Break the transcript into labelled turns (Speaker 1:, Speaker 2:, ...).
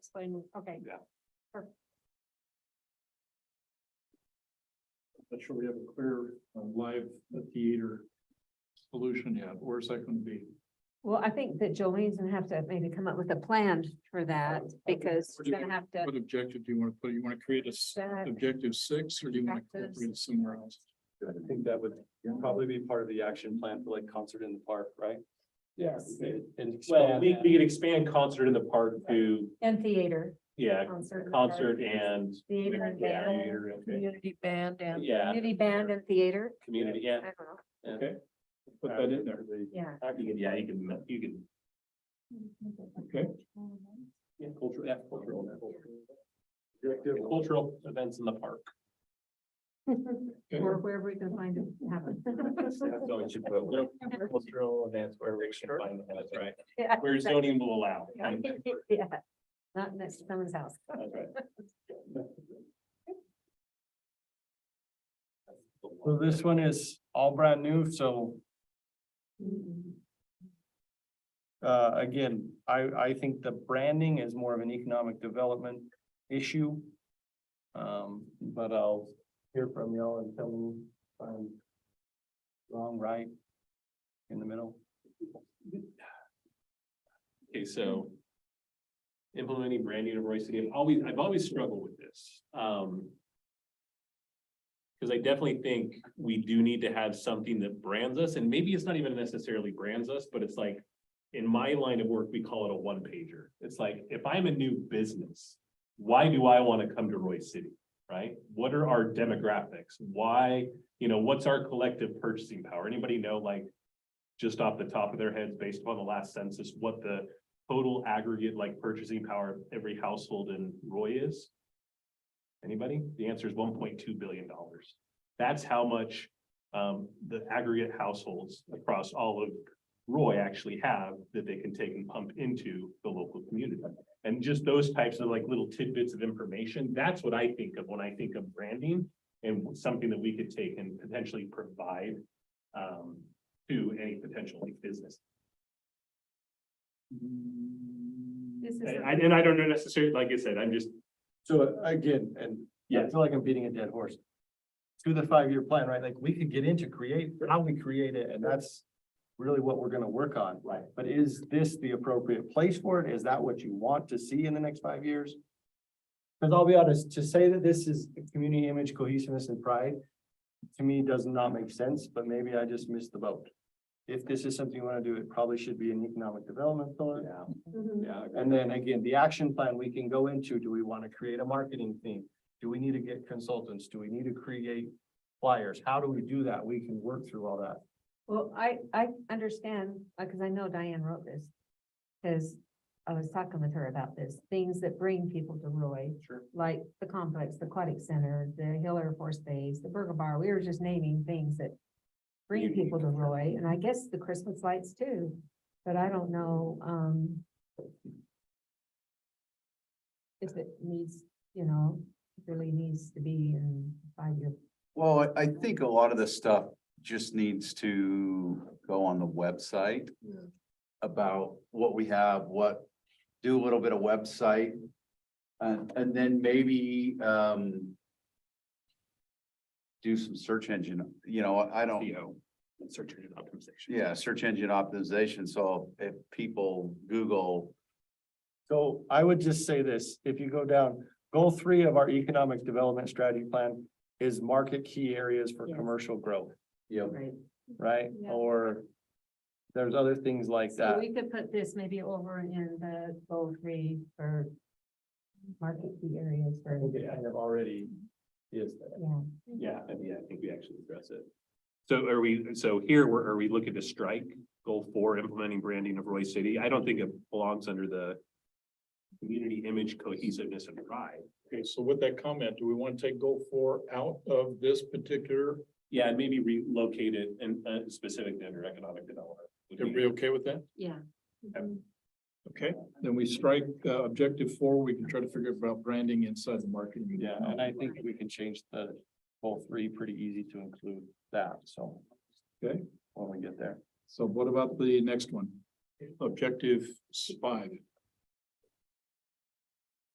Speaker 1: explain, okay.
Speaker 2: Not sure we have a clear uh, live theater solution yet. Where's that gonna be?
Speaker 3: Well, I think that Jolene's gonna have to maybe come up with a plan for that because
Speaker 2: Would
Speaker 3: she's
Speaker 2: you-
Speaker 3: gonna have to.
Speaker 2: What objective do you wanna put? You wanna create a s-
Speaker 3: that-
Speaker 2: objective six or do you wanna
Speaker 3: Objectives.
Speaker 2: create it somewhere else?
Speaker 4: I think that would probably be part of the action plan for like concert in the park, right?
Speaker 1: Yes.
Speaker 4: And- And
Speaker 5: Well,
Speaker 4: expand
Speaker 5: we,
Speaker 4: that.
Speaker 5: we could expand concert in the park to,
Speaker 3: And theater.
Speaker 5: yeah,
Speaker 3: Concert.
Speaker 5: concert and.
Speaker 3: Theater and band.
Speaker 5: Theater, okay.
Speaker 1: Community band and.
Speaker 5: Yeah,
Speaker 3: Community band and theater.
Speaker 5: community, yeah.
Speaker 3: I don't know.
Speaker 5: and-
Speaker 2: Okay.
Speaker 4: Put that in there.
Speaker 3: Yeah.
Speaker 5: You can, yeah, you can, you can,
Speaker 2: Okay.
Speaker 5: yeah, cultural, yeah, cultural.
Speaker 4: Objective.
Speaker 5: Cultural events in the park.
Speaker 3: Or wherever we can find it happen.
Speaker 5: Cultural events where we can find them, that's right.
Speaker 3: Yeah.
Speaker 5: Where zoning will allow.
Speaker 3: Yeah. Not next to someone's house.
Speaker 5: That's right.
Speaker 4: So this one is all brand new, so uh, again, I, I think the branding is more of an economic development issue. Um, but I'll hear from y'all and tell me if I'm wrong, right, in the middle.
Speaker 5: Okay, so. Implementing branding of Roy City, I've always, I've always struggled with this, um. Cause I definitely think we do need to have something that brands us, and maybe it's not even necessarily brands us, but it's like. In my line of work, we call it a one pager. It's like, if I'm a new business, why do I wanna come to Roy City? Right? What are our demographics? Why, you know, what's our collective purchasing power? Anybody know like? Just off the top of their heads, based upon the last census, what the total aggregate like purchasing power of every household in Roy is? Anybody? The answer is one point two billion dollars. That's how much um the aggregate households across all of Roy actually have that they can take and pump into the local community. And just those types of like little tidbits of information, that's what I think of when I think of branding and something that we could take and potentially provide um to any potential like business.
Speaker 3: This is
Speaker 5: And I, and I don't know necessarily, like I said, I'm just,
Speaker 4: So again, and I
Speaker 5: Yes.
Speaker 4: feel like I'm beating a dead horse. To the five-year plan, right? Like, we could get into create, how we create it, and that's really what we're gonna work on.
Speaker 5: Right.
Speaker 4: But is this the appropriate place for it? Is that what you want to see in the next five years? Cause I'll be honest, to say that this is community image cohesiveness and pride, to me, does not make sense, but maybe I just missed the boat. If this is something you wanna do, it probably should be an economic development pillar. Yeah.
Speaker 3: mm-hmm.
Speaker 4: Yeah, and then again, the action plan we can go into, do we want to create a marketing theme? Do we need to get consultants? Do we need to create flyers? How do we do that? We can work through all that.
Speaker 3: Well, I, I understand, because I know Diane wrote this. Because I was talking with her about this, things that bring people to Roy.
Speaker 5: Sure.
Speaker 3: Like the complex, the aquatic center, the Hill Air Force Base, the Burger Bar, we were just naming things that bring
Speaker 5: Unique.
Speaker 3: people to Roy, and I guess the Christmas lights too, but I don't know, um. If it needs, you know, really needs to be in five-year
Speaker 6: Well, I- I think a lot of this stuff just needs to go on the website. About what we have, what, do a little bit of website. And, and then maybe, um. Do some search engine, you know, I don't.
Speaker 5: SEO, E search engine optimization.
Speaker 6: Yeah, search engine optimization, so if people Google,
Speaker 4: So I would just say this, if you go down, goal three of our economic development strategy plan is market key areas for
Speaker 3: Yes.
Speaker 4: commercial growth,
Speaker 6: you know,
Speaker 3: right?
Speaker 4: right?
Speaker 3: Yeah.
Speaker 4: Or there's other things like
Speaker 3: So
Speaker 4: that.
Speaker 3: we could put this maybe over in the goal three for market key areas for,
Speaker 4: kind of already is there.
Speaker 3: yeah.
Speaker 5: Yeah, I mean, I think we actually address it. So are we, so here, we're, are we looking to strike goal four, implementing branding of Roy City? I don't think it belongs under the community image cohesiveness and pride.
Speaker 2: Okay, so with that comment, do we wanna take goal four out of this particular?
Speaker 5: Yeah, and maybe relocate it and, uh, specific to under economic development.
Speaker 2: Everybody okay with that?
Speaker 3: Yeah.
Speaker 2: Okay, then we strike uh objective four. We can try to figure about branding inside the marketing.
Speaker 4: Yeah, and I think we can change the goal three pretty easy to include that, so.
Speaker 2: Okay.
Speaker 4: When we get there.
Speaker 2: So what about the next one? Objective five.